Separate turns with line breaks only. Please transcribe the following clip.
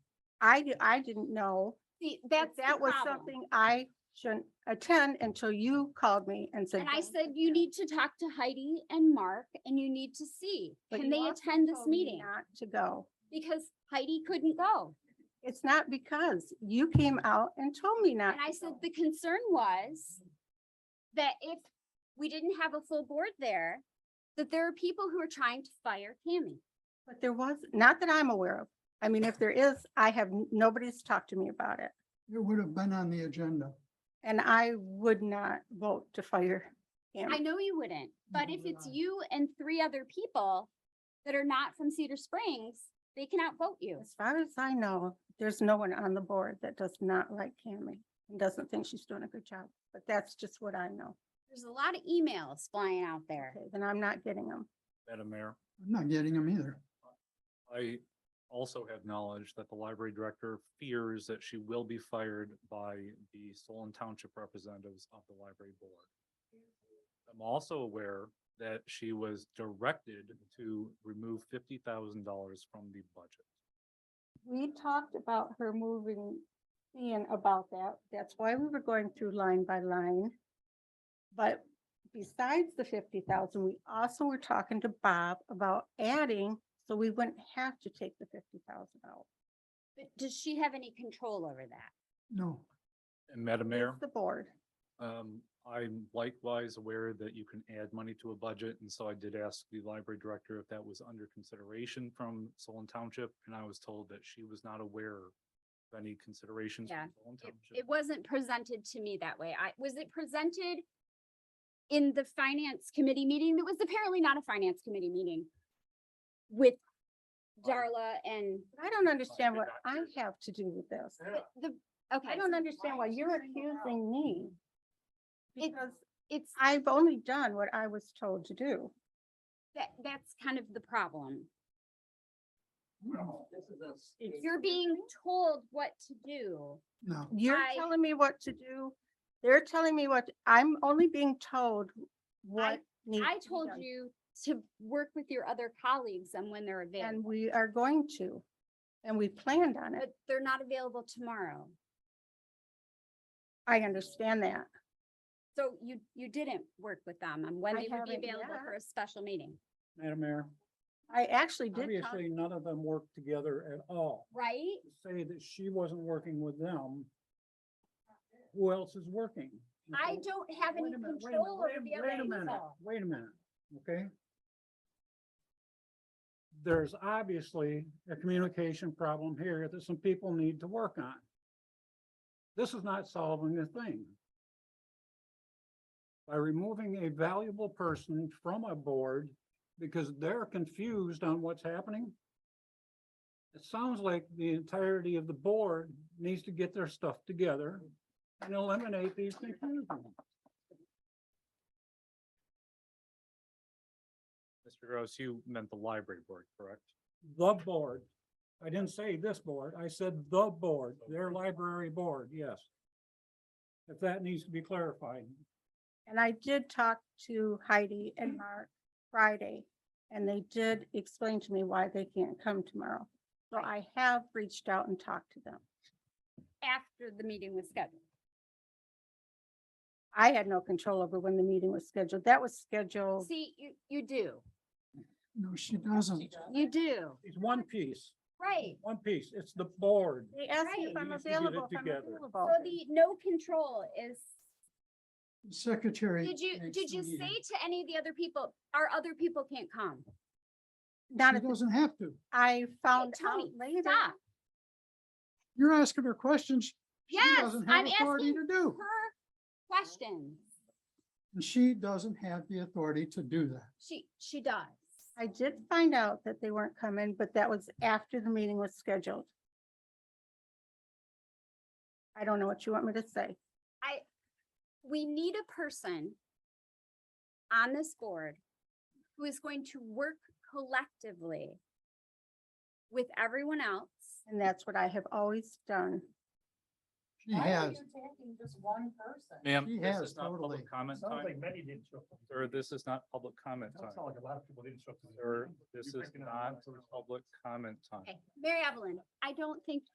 I, di- I didn't know.
See,
that
that's the
That was
problem.
something I shouldn't attend until you called me and said.
And I
"Don't
said, you need to talk to Heidi and Mark and you need to see,
But
can
you
they
also
attend this
tell me
meeting?
Not to go.
Because Heidi couldn't go.
It's not because you came out and told me not.
And I
to
said,
go.
the concern was that if we didn't have a full board there, that there are people who are trying to fire Tammy.
But there was, not that I'm aware of. I mean, if there is, I have, n- nobody's talked to me about it.
It would have been on the agenda.
And I would not vote to fire
I
him.
know you wouldn't, but if
would
it's
I.
you and three other people that are not from Cedar Springs, they can outvote you.
As far as I know, there's no one on the board that does not like Cammy and doesn't think she's doing a good job. But that's just what I know.
There's a lot of emails flying out there.
Okay, Then I'm not getting them.
Madam Mayor,
I'm not getting them either.
I also have knowledge that the library director fears that she will be fired by the Solon Township representatives of the library board. I'm also aware that she was directed to remove fifty thousand dollars from the budget.
We talked about her moving, in about that. That's why we were going through line by line. But besides the fifty thousand, we also were talking to Bob about adding, so we wouldn't have to take the fifty thousand out.
But does she have any control over that?
No,
And Madam Mayor,
It's The board.
um, I'm likewise aware that you can add money to a budget, and so I did ask the library director if that was under consideration from Solon Township, and I was told that she was not aware of any considerations. from
Yeah,
Solon
It,
Township.
it wasn't presented to me that way. I, was it presented in the finance committee meeting? That was apparently not a finance committee meeting with Darla and
I don't understand what
Library
I
director.
have to do with this.
but the, okay.
I don't understand why you're accusing me.
It-
Because
It's,
I've only done what I was told to do.
that, that's kind of the problem.
no,
You're being told what to do.
no.
You're
I-
telling me what to do. They're telling me what, I'm only being told what needs.
I
to be
told
done,
you to work with your other colleagues and when they're
And
available,
we are going to, and we planned on it.
but they're not available tomorrow.
I understand that.
So you, you didn't work with them on when
I
they would be
haven't
available for a special meeting,
Madam Mayor,
I actually did. tell-
obviously none of them worked together at all.
right?
To Say that she wasn't working with them. Who else is working?
I
Okay?
don't have
Mm-hmm.
any
Wait a minute, wait a
control over
minute,
the E
wait
other
a minute,
people.
Wait a minute, okay? There's obviously a communication problem here that some people need to work on. This is not solving the thing. By removing a valuable person from a board because they're confused on what's happening. It sounds like the entirety of the board needs to get their stuff together and eliminate these confusions.
Mr. Gross, you meant the library board, correct?
The board. I didn't say this board. I said the board, their library board, yes. If that needs to be clarified.
And I did talk to Heidi
Mm.
and Mark Friday, and they did explain to me why they can't come tomorrow. So I have reached out and talked to them.
After the meeting was scheduled.
I had no control over when the meeting was scheduled. That was
Oh.
scheduled.
See, you, you do,
No, she doesn't.
you do,
It's one piece,
right?
one piece. It's the board.
They asked me if
Right.
I'm
We need to get it
available, if I'm
together.
So
available.
the no control is,
The Secretary.
did you,
makes
did
the
you say
meeting.
to any of the other people, our other people can't come?
Not
She
at the
doesn't have to.
I found out
Tony,
later.
stop.
You're asking her questions. she
Yes,
doesn't have
I'm
authority
asking
To do,
her questions.
and she doesn't have the authority to do that.
She, she does.
I did find out that they weren't coming, but that was after the meeting was scheduled. I don't know what you want me to say.
We need a person on this board who is going to work collectively with everyone else.
And that's what I have always done.
She has.
taking just one person?
Ma'am,
She
this
has,
is not
totally.
public comment time,
many didn't show up.
sir, this is not public comment time,
like a lot of people didn't show up.
sir, this is not public comment time.
Okay, Mary Evelyn, I don't think